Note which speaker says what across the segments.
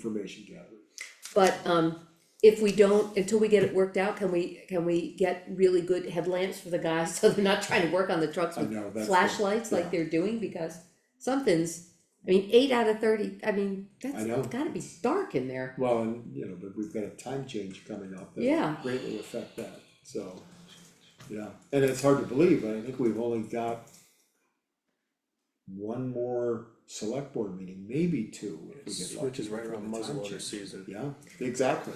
Speaker 1: information gathering.
Speaker 2: But um, if we don't, until we get it worked out, can we, can we get really good headlamps for the guys, so they're not trying to work on the trucks
Speaker 1: I
Speaker 2: with
Speaker 1: know, that's. the-
Speaker 2: flashlights like
Speaker 1: yeah.
Speaker 2: they're doing, because something's, I mean, eight out of thirty, I mean, that's
Speaker 1: I know.
Speaker 2: gotta be dark in there.
Speaker 1: Well, and you know, but we've got a time change coming up that will
Speaker 2: Yeah.
Speaker 1: greatly affect that, so. Yeah, and it's hard to believe, but I think we've only got one more select board meeting, maybe two. if we get lucky
Speaker 3: Which is right around
Speaker 1: with the time
Speaker 3: muzzleloader
Speaker 1: change.
Speaker 3: season.
Speaker 1: Yeah, exactly,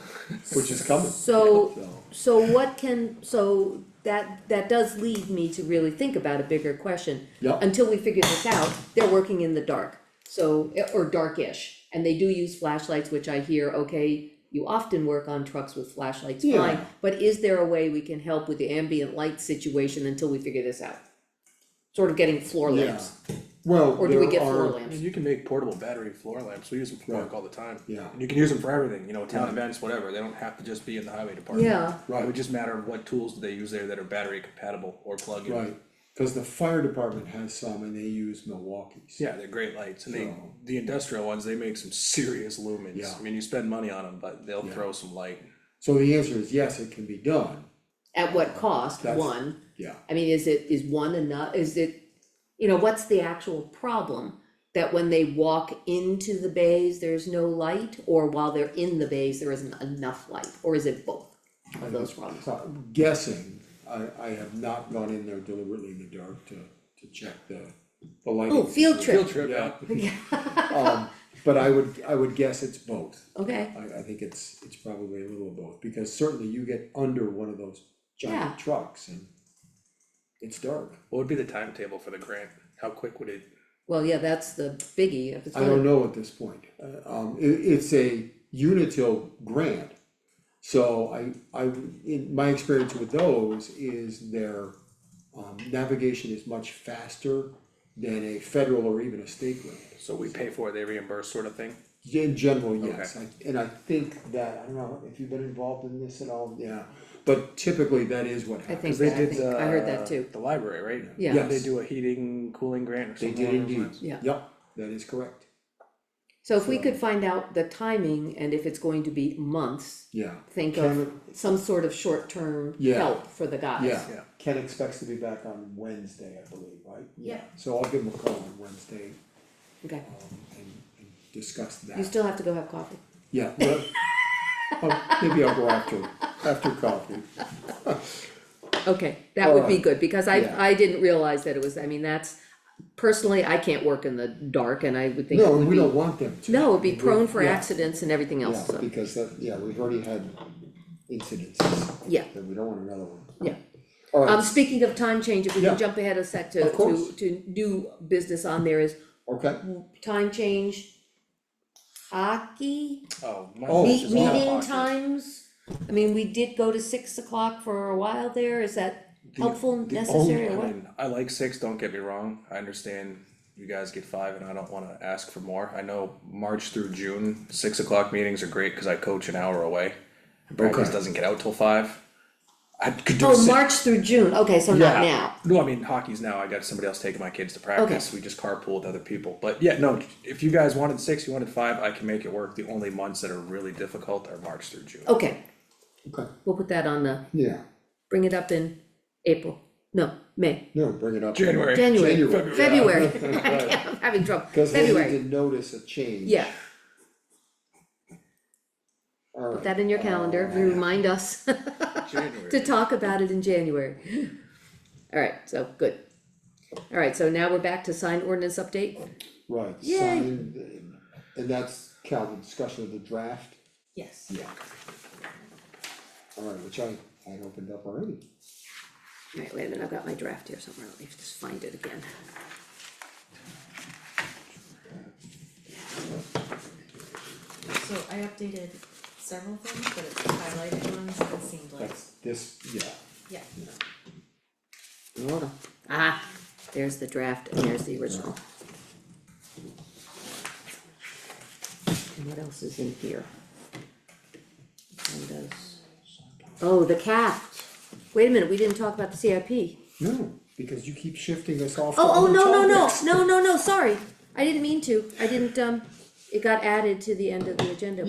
Speaker 1: which is coming.
Speaker 2: So-
Speaker 1: So,
Speaker 2: So what can, so that, that does lead me to really think about a bigger question.
Speaker 1: Yep.
Speaker 2: Until we figure this out, they're working in the dark, so, or darkish, and they do use flashlights, which I hear, okay, you often work on trucks with flashlights, fine,
Speaker 1: Yeah.
Speaker 2: but is there a way we can help with the ambient light situation until we figure this out? Sort of getting floor
Speaker 1: yeah,
Speaker 2: lamps,
Speaker 1: well,
Speaker 2: or do we
Speaker 1: there
Speaker 2: get floor
Speaker 1: are-
Speaker 3: I mean,
Speaker 2: lamps?
Speaker 3: you can make portable battery floor lamps, we use them for work all the time.
Speaker 1: Yeah.
Speaker 3: And you can use them for everything, you know, town events, whatever, they don't have to just be in the highway department.
Speaker 2: Yeah.
Speaker 1: Right.
Speaker 3: It would just matter of what tools do they use there that are battery compatible or plug-in.
Speaker 1: Right, cause the fire department has some and they use Milwaukee's.
Speaker 3: Yeah, they're great lights, and they,
Speaker 1: So-
Speaker 3: the industrial ones, they make some serious lumens.
Speaker 1: Yeah.
Speaker 3: I mean, you spend money on them, but they'll throw some light.
Speaker 1: So the answer is yes, it can be done,
Speaker 2: At what cost,
Speaker 1: That's-
Speaker 2: one?
Speaker 1: yeah.
Speaker 2: I mean, is it, is one enough, is it, you know, what's the actual problem? That when they walk into the bays, there's no light, or while they're in the bays, there isn't enough light, or is it both of those problems?
Speaker 1: So I'm guessing, I, I have not gone in there deliberately in the dark to, to check the, the lighting.
Speaker 2: Oh, field
Speaker 3: Field
Speaker 2: trip,
Speaker 3: trip,
Speaker 1: Yeah,
Speaker 3: yeah,
Speaker 1: um, but I would, I would guess it's both.
Speaker 2: okay,
Speaker 1: I, I think it's, it's probably a little of both, because certainly you get under one of those
Speaker 2: Yeah.
Speaker 1: giant trucks and it's dark.
Speaker 3: what would be the timetable for the grant, how quick would it,
Speaker 2: well, yeah, that's the biggie, if it's
Speaker 1: I don't
Speaker 2: gonna,
Speaker 1: know at this point, Uh, um, it, it's a Unitil grant. So I, I, in my experience with those is their, um, navigation is much faster than a federal or even a state grant.
Speaker 3: so we pay for it, they reimburse sort of thing?
Speaker 1: In general, yes, I- and I think that, I don't know, if you've been involved in this at all, yeah, but typically that is what
Speaker 2: I
Speaker 1: happens.
Speaker 2: think,
Speaker 3: Cause they
Speaker 2: that- I
Speaker 3: did
Speaker 2: think,
Speaker 3: the.
Speaker 2: I heard that too,
Speaker 3: The library, right?
Speaker 2: Yeah.
Speaker 3: Didn't They
Speaker 1: Yes.
Speaker 3: do a heating, cooling grant or
Speaker 1: They
Speaker 3: something
Speaker 1: did
Speaker 3: along those
Speaker 1: indeed,
Speaker 3: lines.
Speaker 2: Yeah.
Speaker 1: yep, that is correct,
Speaker 2: so if we could find out the timing and if it's going to be months,
Speaker 1: yeah.
Speaker 2: think of
Speaker 1: Can-
Speaker 2: some sort of short-term
Speaker 1: Yeah.
Speaker 2: help for the guys.
Speaker 1: Yeah,
Speaker 3: Yeah.
Speaker 1: Ken expects to be back on Wednesday, I believe, right?
Speaker 2: Yeah.
Speaker 1: So I'll give him a call on Wednesday,
Speaker 2: Okay,
Speaker 1: um, and, and discuss that.
Speaker 2: you still have to go have coffee,
Speaker 1: Yeah, well, oh, maybe I'll go after, after coffee.
Speaker 2: Okay, that would be
Speaker 1: Alright,
Speaker 2: good, because I,
Speaker 1: yeah.
Speaker 2: I didn't realize that it was, I mean, that's, personally, I can't work in the dark and I would think it
Speaker 1: No,
Speaker 2: would
Speaker 1: we
Speaker 2: be.
Speaker 1: don't want them to.
Speaker 2: No, it'd be prone for
Speaker 1: Yeah,
Speaker 2: accidents and everything
Speaker 1: Yeah,
Speaker 2: else, so,
Speaker 1: because that, yeah, we've already had incidences,
Speaker 2: yeah,
Speaker 1: and we don't want another one.
Speaker 2: yeah. Um,
Speaker 1: Alright,
Speaker 2: speaking of time change, if we can
Speaker 1: Yeah.
Speaker 2: jump ahead a sec to,
Speaker 1: Of
Speaker 2: to,
Speaker 1: course.
Speaker 2: to new business on there is
Speaker 1: okay,
Speaker 2: time change. Hockey,
Speaker 3: Oh. my
Speaker 1: Oh,
Speaker 3: gosh,
Speaker 2: meet,
Speaker 3: it's all
Speaker 2: meeting
Speaker 3: pocket.
Speaker 2: times, I mean, we did go to six o'clock for a while there, is that
Speaker 3: The-
Speaker 2: helpful,
Speaker 3: the
Speaker 2: necessary,
Speaker 3: only-
Speaker 2: or
Speaker 3: I
Speaker 2: what?
Speaker 3: mean, Oh, I like six, don't get me wrong, I understand you guys get five and I don't wanna ask for more, I know March through June, six o'clock meetings are great, cause I coach an hour away. Practice
Speaker 1: Okay.
Speaker 3: doesn't get out till five. I could do
Speaker 2: Oh,
Speaker 3: six.
Speaker 2: March through June, okay, so not
Speaker 3: Yeah.
Speaker 2: now,
Speaker 3: No, I mean, hockey's now, I got somebody else taking my kids to practice, we just carpool with other people, but yeah, no, if you guys wanted six, you wanted five, I can make it work, the only months that are really difficult are March through June.
Speaker 2: okay,
Speaker 1: okay,
Speaker 2: we'll put that on the,
Speaker 1: yeah,
Speaker 2: bring it up in April, no, May,
Speaker 1: no, bring it up.
Speaker 3: January.
Speaker 2: January,
Speaker 1: January.
Speaker 2: February, I'm having trouble,
Speaker 1: Cause they need
Speaker 2: February,
Speaker 1: to notice a change.
Speaker 2: yeah,
Speaker 1: Alright.
Speaker 2: put that in your calendar,
Speaker 1: Oh,
Speaker 2: remind us
Speaker 3: January.
Speaker 2: to talk about it in January. Alright, so, good. Alright, so now we're back to sign ordinance update,
Speaker 1: Right,
Speaker 2: Yay.
Speaker 1: signed, and- and that's Calvin, discussion of the draft,
Speaker 2: yes,
Speaker 1: yeah. Alright, which I, I had opened up already,
Speaker 2: alright, wait a minute, I've got my draft here somewhere, let me just find it again.
Speaker 4: So I updated several things, but it's the highlighted ones that seemed like,
Speaker 1: that's this, yeah,
Speaker 4: yeah,
Speaker 2: Hold on. Ah, there's the draft and there's the original. And what else is in here? And those- Oh, the cap. Wait a minute, we didn't talk about the CIP.
Speaker 1: no, because you keep shifting us off. to
Speaker 2: Oh, oh,
Speaker 1: other
Speaker 2: no, no, no,
Speaker 1: topics.
Speaker 2: no, no, no, sorry. I didn't mean to. I didn't, um, it got added to the end of the agenda